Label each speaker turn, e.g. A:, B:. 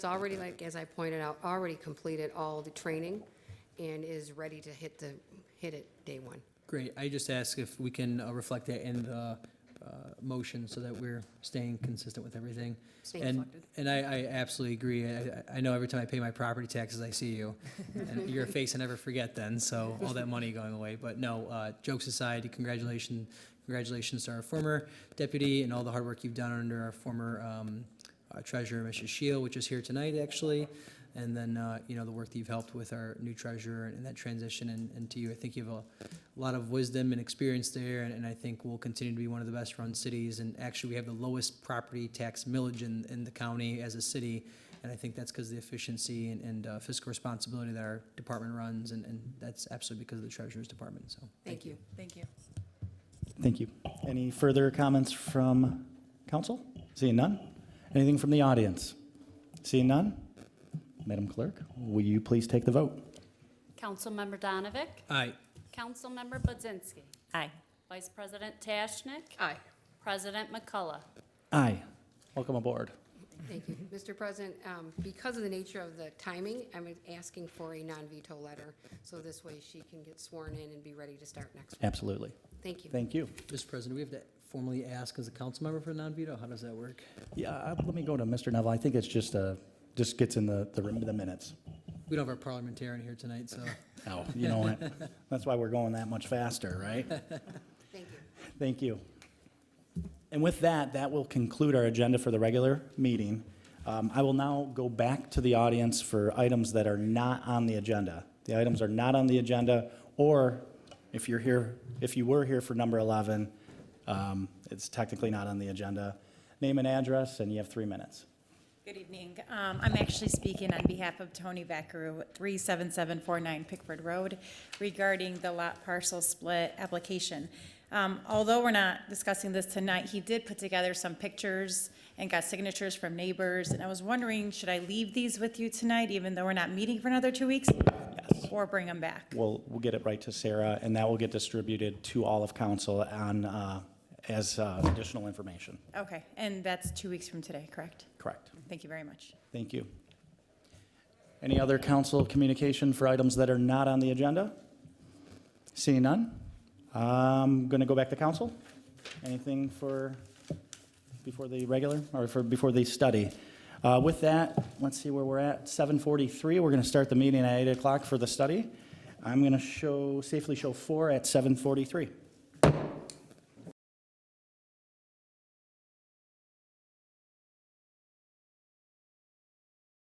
A: It's already, like, as I pointed out, already completed all the training and is ready to hit the, hit it day one.
B: Great, I just ask if we can uh, reflect that in the uh, motion so that we're staying consistent with everything.
A: Staying
B: And-
A: reflected.
B: And I, I absolutely agree. I, I- I know every time I pay my property taxes, I see you. And your face I never forget then, so all that money going away. But no, uh, jokes aside, congratulations, congratulations to our former deputy and all the hard work you've done under our former um, uh, treasurer, Mrs. Shield, which is here tonight, actually. And then, uh, you know, the work that you've helped with our new treasurer and that transition and, and to you. I think you have a lot of wisdom and experience there, and, and I think we'll continue to be one of the best-run cities. And actually, we have the lowest property tax millage in, in the county as a city. And I think that's because of the efficiency and, and uh, fiscal responsibility that our department runs, and, and that's absolutely because of the treasurer's department, so.
A: Thank you.
C: Thank you.
D: Thank you. Any further comments from council? Seeing none? Anything from the audience? Seeing none? Madam Clerk, will you please take the vote?
E: Councilmember Donavick.
B: Aye.
E: Councilmember Budzinski. Aye. Vice President Tashnik.
A: Aye.
E: President McCullough.
D: Aye. Welcome aboard.
A: Thank you. Mr. President, um, because of the nature of the timing, I'm asking for a non-veto letter, so this way she can get sworn in and be ready to start next week.
D: Absolutely.
A: Thank you.
D: Thank you.
B: Mr. President, we have to formally ask as a council member for a non-veto? How does that work?
D: Yeah, uh, let me go to Mr. Neville. I think it's just, uh, just gets in the, the the minutes.
B: We don't have our parliamentarian here tonight, so.
D: Oh, you know what? That's why we're going that much faster, right?
A: Thank you.
D: Thank you. And with that, that will conclude our agenda for the regular meeting. Um, I will now go back to the audience for items that are not on the agenda. The items are not on the agenda, or if you're here, if you were here for number 11, um, it's technically not on the agenda. Name and address, and you have three minutes.
C: Good evening. Um, I'm actually speaking on behalf of Tony Vaccaru, 37749 Pickford Road, regarding the lot parcel split application. Um, Although we're not discussing this tonight, he did put together some pictures and got signatures from neighbors, and I was wondering, should I leave these with you tonight, even though we're not meeting for another two weeks? Yes. Or bring them back?
D: We'll, we'll get it right to Sarah, and that will get distributed to all of council on, uh, as uh, additional information.
C: Okay, and that's two weeks from today, correct?
D: Correct.
C: Thank you very much.
D: Thank you. Any other council communication for items that are not on the agenda? Seeing none, I'm going to go back to council. Anything for, before the regular, or for, before the study? Uh, With that, let's see where we're at, 7:43, we're going to start the meeting at 8 o'clock for the study. I'm going to show, safely show four at 7:43.